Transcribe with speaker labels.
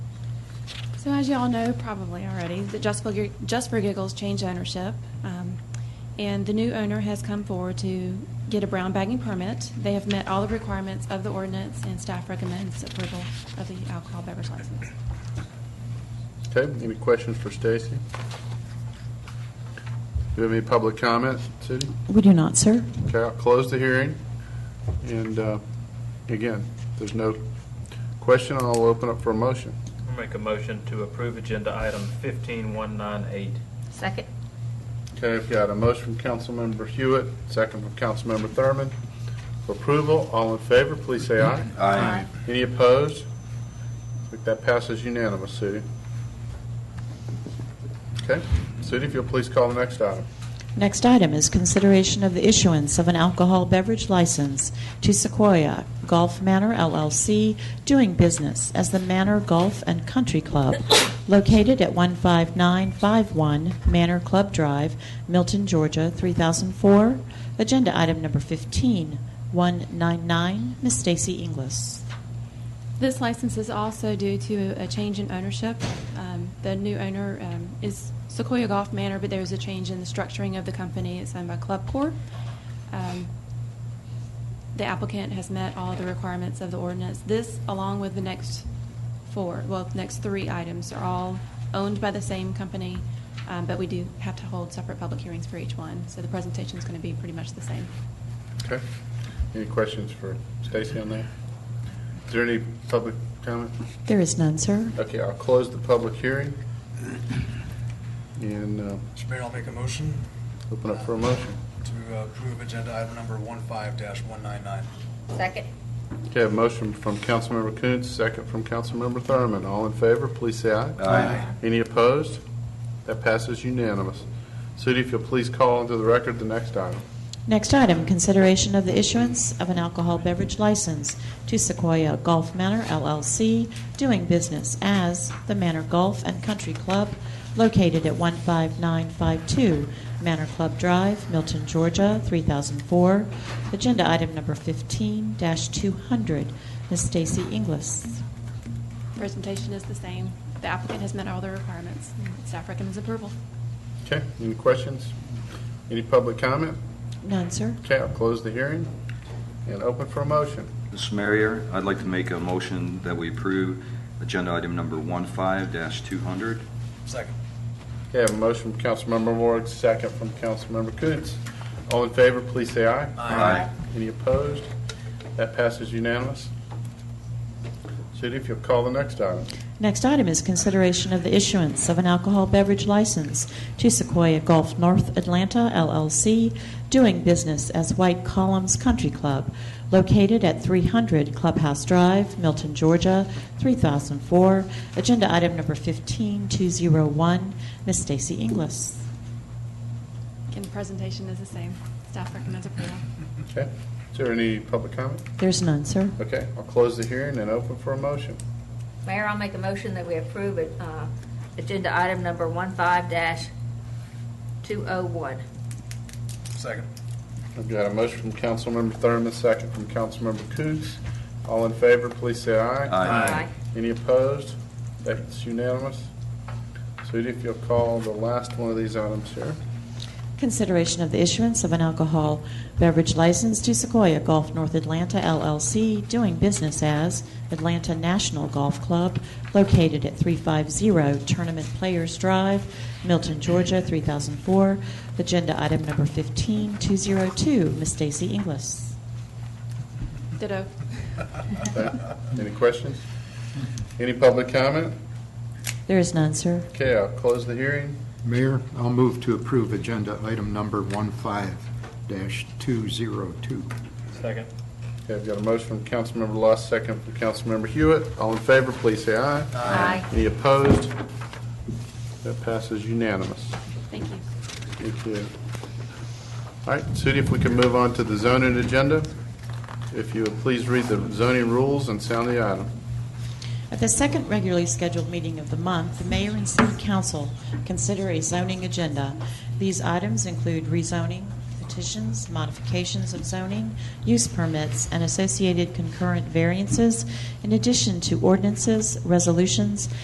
Speaker 1: So as you all know, probably already, that Just for, Gi- Just for Giggles changed ownership, um, and the new owner has come forward to get a brown bagging permit. They have met all the requirements of the ordinance, and staff recommends approval of the alcohol beverage license.
Speaker 2: Okay, any questions for Stacy? Do you have any public comment, Cindy?
Speaker 3: We do not, sir.
Speaker 2: Okay, I'll close the hearing, and uh, again, if there's no question, I'll open up for a motion.
Speaker 4: I'll make a motion to approve agenda item 15198.
Speaker 5: Second.
Speaker 2: Okay, I've got a motion from Councilmember Hewitt, second from Councilmember Thurman. For approval, all in favor, please say aye.
Speaker 5: Aye.
Speaker 2: Any opposed? I think that passes unanimous, Sudi. Okay, Sudi, if you'll please call the next item.
Speaker 3: Next item is consideration of the issuance of an alcohol beverage license to Sequoia Golf Manor LLC, doing business as the Manor Golf and Country Club, located at 15951 Manor Club Drive, Milton, Georgia, 3004. Agenda item number 15, 199, Miss Stacy Inglis.
Speaker 1: This license is also due to a change in ownership. Um, The new owner um, is Sequoia Golf Manor, but there's a change in the structuring of the company. It's owned by Club Corp. Um, The applicant has met all the requirements of the ordinance. This, along with the next four, well, the next three items are all owned by the same company, um, but we do have to hold separate public hearings for each one, so the presentation is going to be pretty much the same.
Speaker 2: Okay. Any questions for Stacy on that? Is there any public comment?
Speaker 3: There is none, sir.
Speaker 2: Okay, I'll close the public hearing and uh,
Speaker 6: Mr. Mayor, I'll make a motion
Speaker 2: open up for a motion.
Speaker 6: to uh, approve agenda item number 15-199.
Speaker 5: Second.
Speaker 2: Okay, a motion from Councilmember Coons, second from Councilmember Thurman. All in favor, please say aye.
Speaker 6: Aye.
Speaker 2: Any opposed? That passes unanimous. Sudi, if you'll please call into the record the next item.
Speaker 3: Next item, consideration of the issuance of an alcohol beverage license to Sequoia Golf Manor LLC, doing business as the Manor Golf and Country Club, located at 15952 Manor Club Drive, Milton, Georgia, 3004. Agenda item number 15-200. Ms. Stacy Inglis.
Speaker 1: Presentation is the same. The applicant has met all the requirements. Staff recommends approval.
Speaker 2: Okay, any questions? Any public comment?
Speaker 3: None, sir.
Speaker 2: Okay, I'll close the hearing and open for a motion.
Speaker 7: Mr. Mayor, I'd like to make a motion that we approve agenda item number 15-200.
Speaker 6: Second.
Speaker 2: Okay, I have a motion from Councilmember Ward, second from Councilmember Coons. All in favor, please say aye.
Speaker 7: Aye.
Speaker 2: Any opposed? That passes unanimous. City, if you'll call the next item.
Speaker 3: Next item is consideration of the issuance of an alcohol beverage license to Sequoia Golf North Atlanta LLC, doing business as White Columns Country Club, located at 300 Clubhouse Drive, Milton, Georgia, 3004. Agenda item number 15201, Miss Stacy Inglis.
Speaker 1: Again, the presentation is the same. Staff recommends approval.
Speaker 2: Okay, is there any public comment?
Speaker 3: There's none, sir.
Speaker 2: Okay, I'll close the hearing and open for a motion.
Speaker 5: Mayor, I'll make a motion that we approve it, uh, agenda item number 15-201.
Speaker 6: Second.
Speaker 2: I've got a motion from Councilmember Thurman, second from Councilmember Coons. All in favor, please say aye.
Speaker 7: Aye.
Speaker 2: Any opposed? That's unanimous. City, if you'll call the last one of these items here.
Speaker 3: Consideration of the issuance of an alcohol beverage license to Sequoia Golf North Atlanta LLC, doing business as Atlanta National Golf Club, located at 350 Tournament Players Drive, Milton, Georgia, 3004. Agenda item number 15202, Ms. Stacy Inglis.
Speaker 1: Ditto.
Speaker 2: Okay. Any questions? Any public comment?
Speaker 3: There is none, sir.
Speaker 2: Okay, I'll close the hearing.
Speaker 8: Mayor, I'll move to approve agenda item number 15-202.
Speaker 4: Second.
Speaker 2: Okay, I've got a motion from Councilmember Luss, second from Councilmember Hewitt. All in favor, please say aye.
Speaker 5: Aye.
Speaker 2: Any opposed? That passes unanimous.
Speaker 1: Thank you.
Speaker 2: Thank you. All right, Sudi, if we can move on to the zoning agenda. If you would please read the zoning rules and sound the item.
Speaker 3: At the second regularly scheduled meeting of the month, the mayor and city council consider a zoning agenda. These items include rezoning, petitions, modifications of zoning, use permits, and associated concurrent variances, in addition to ordinances, resolutions,